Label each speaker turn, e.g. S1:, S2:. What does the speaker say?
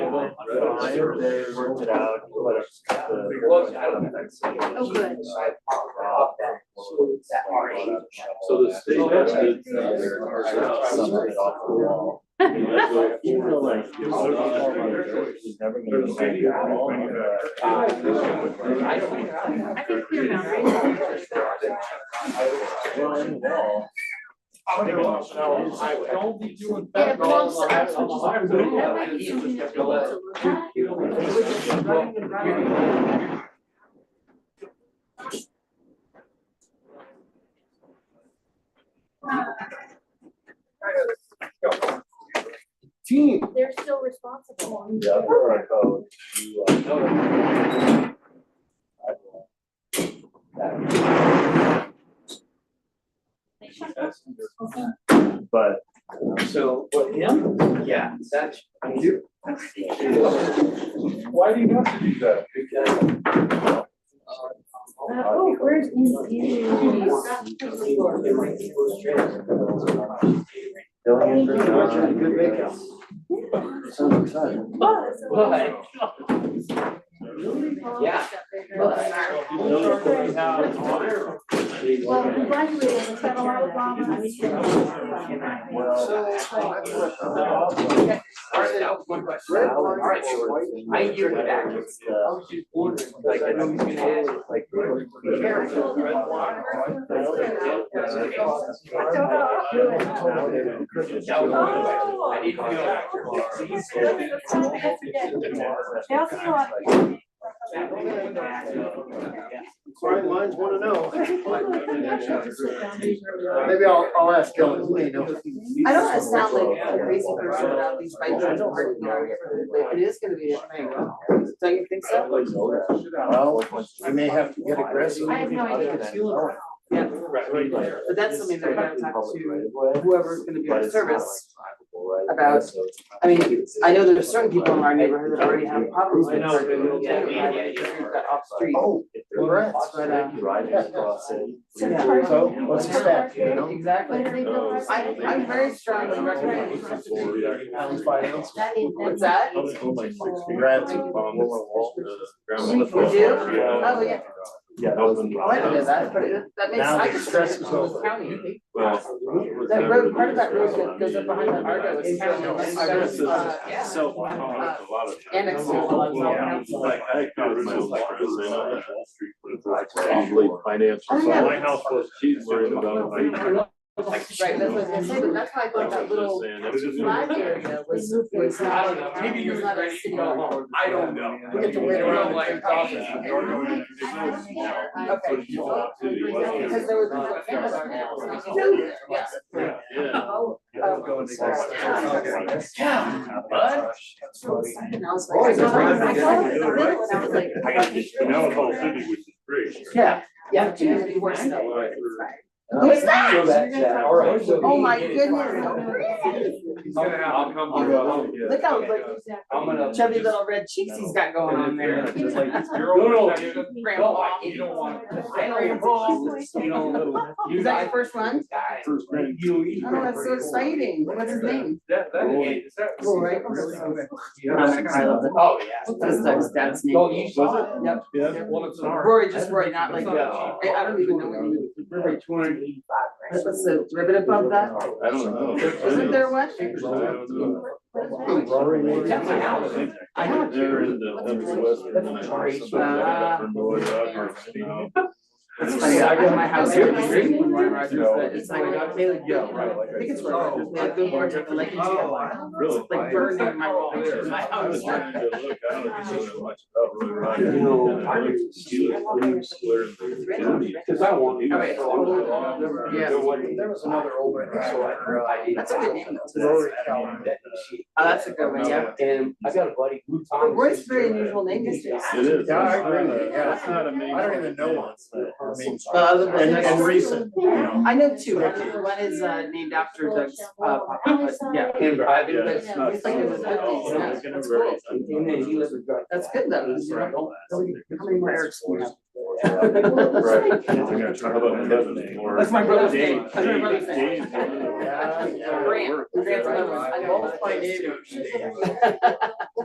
S1: fine, they worked it out, let us.
S2: Oh, good.
S3: So the state has to.
S1: Some of it off the wall. You feel like.
S3: Yeah, so there's not much choice.
S1: He's never
S3: There's
S1: gonna
S3: a
S1: say
S3: city
S1: you're
S3: that
S1: wrong.
S3: won't bring it back.
S1: Uh,
S3: I don't-
S2: I think clear boundaries.
S1: Well, in the wall.
S3: How many miles an hour on the highway?
S4: Don't be doing
S2: Yeah,
S4: that.
S2: but I'm sorry. That might be something that we need to
S4: Well,
S2: look at.
S4: Team.
S2: They're still responsible.
S1: Yeah, or I go to, uh, I go. But.
S5: So,
S4: But him?
S5: yeah, that's, I mean, you-
S3: Why do you have to do that?
S5: because,
S2: Oh, where's East
S1: Billions
S5: Good work, good
S1: are.
S5: makeup.
S1: Sounds exciting.
S5: but, Yeah.
S2: Well, we graduated with federal Obama. I mean,
S1: Well.
S5: all right, that was one question. All right, so I hear you back. I was just wondering, like, I know he's gonna ask, like, careful, red wine. That was one question. I need to go back to the police.
S2: They also know what-
S4: Brian Lyons wanna know.
S6: Maybe I'll, I'll ask Kelly, he may know.
S7: I don't wanna sound like a crazy person
S6: uh,
S7: about these bikes, I don't argue, but it is gonna be a thing, don't you think so?
S1: Well,
S6: I may have to get aggressive.
S2: I have no idea.
S7: Yeah, but that's something that we're gonna talk to whoever's gonna be our service. about- I mean, I know there's certain people in our neighborhood that already have problems with certain, things,
S5: Yeah, yeah, yeah,
S7: like,
S5: yeah.
S7: we've got off street.
S6: Oh,
S1: Congrats,
S7: but, uh,
S1: Riding across it.
S2: Yeah.
S6: so what's the stack, you know?
S7: Exactly.
S2: Where do they build our-
S7: I, I'm very strongly recommend,
S2: That is-
S7: what's that?
S6: Congrats.
S7: You do? Oh, yeah,
S1: Yeah, that was.
S7: oh, I don't know that, but it, that makes,
S6: Now
S7: I
S6: the
S7: just.
S6: stress is over.
S7: County.
S3: That
S7: That road, part of that road that goes up behind that Argo is county, and then that's, uh, yeah.
S3: So.
S7: Annex to the Lodge Law Council.
S3: financial.
S7: Oh, yeah.
S3: My house was, she's worried about. like,
S7: Right, that's what I was gonna say, but that's why I thought that little
S3: This is-
S7: flag area was, was
S5: I
S7: not,
S5: don't know, maybe you
S7: was
S5: was
S7: not a
S5: ready to
S7: city.
S5: go home, I don't know.
S7: We get to wait around like coffee. Okay. Because there was no cameras on there, so it's not- yeah.
S3: Yeah.
S7: Oh,
S1: Yeah,
S5: bud.
S7: and I was
S6: Oh,
S7: like.
S6: it's a brand
S7: I
S6: new
S7: saw
S6: day.
S7: it, I saw it, and I was like.
S3: I got this, but now it's all city, which is great.
S7: Yeah, yeah, it's gonna be worse than that.
S1: What's that? So that's, uh, all right.
S7: Oh my goodness.
S5: He's gonna have to
S1: I'll-
S5: come
S1: I'll-
S5: here.
S7: Look how like
S5: I'm gonna.
S7: chubby little red cheeks he's got going on there.
S5: Just like, you're
S3: No, no,
S5: all.
S7: Grandpa.
S5: You don't want. I
S7: Grandpa.
S5: don't want, you know, you
S7: Oh, Is that
S5: guys.
S7: your first one?
S5: guys,
S3: First grade.
S5: You eat.
S7: Oh, that's so exciting. What's his name?
S5: That, that is. is that-
S7: Cool, right?
S5: I love it. Oh, yeah.
S7: That's Doug's dad's name.
S5: Oh, you saw it?
S7: Yep.
S3: Yeah.
S5: Well, it's an art.
S7: Rory, just Rory, not like,
S5: No.
S7: I I don't even know what you
S5: Remember two hundred and eighty-five,
S7: would, what's the ribbon above that?
S3: I don't know.
S7: Isn't there one?
S5: That's my house.
S7: I know.
S3: They're in the
S7: Ah.
S3: That's
S7: funny, I got my house here, the
S3: street.
S7: green one, Roy Rogers, but it's like, Taylor,
S3: Yeah, right, like
S7: I think it's
S3: I
S7: Roy Rogers,
S3: said.
S7: they have good words, like, the lake.
S3: Really?
S7: Like burned in my wall. My
S3: I was trying
S7: house.
S3: to look, I don't know if you know much about Roy Rogers.
S5: You know,
S3: And I looked to see the blue square in the county.
S5: Cause I want.
S3: All right.
S7: Yeah.
S5: There was another old one. So I- I.
S7: That's a good name.
S5: Rory Calvin.
S7: Oh, that's a good one, yeah.
S5: And I got a buddy, Lou
S7: But
S5: Thomas.
S7: Roy's very unusual name these days.
S3: It is.
S6: Yeah, I agree with you,
S3: It's
S6: yeah.
S3: not a main.
S6: I don't even know one.
S7: Well, other than-
S6: And, and recent, you know.
S7: I know two, I know one is uh named after Doug's uh papa, but yeah,
S5: And I've
S3: Yeah,
S5: been with.
S3: it's not.
S7: It's like it was fifties, yeah.
S3: It's gonna
S7: That's
S3: vary.
S5: And then he lives with. God.
S7: that's good though, because you don't, how many more Erics do we have? uh,
S3: Right. I think I tried about eleven or-
S7: That's my brother's name.
S3: Dave-
S7: That's my brother's
S3: Dave-
S7: name.
S3: Dave's one of the-
S6: Yeah, yeah.
S7: Grant, Grant's another one. I know all my neighbors.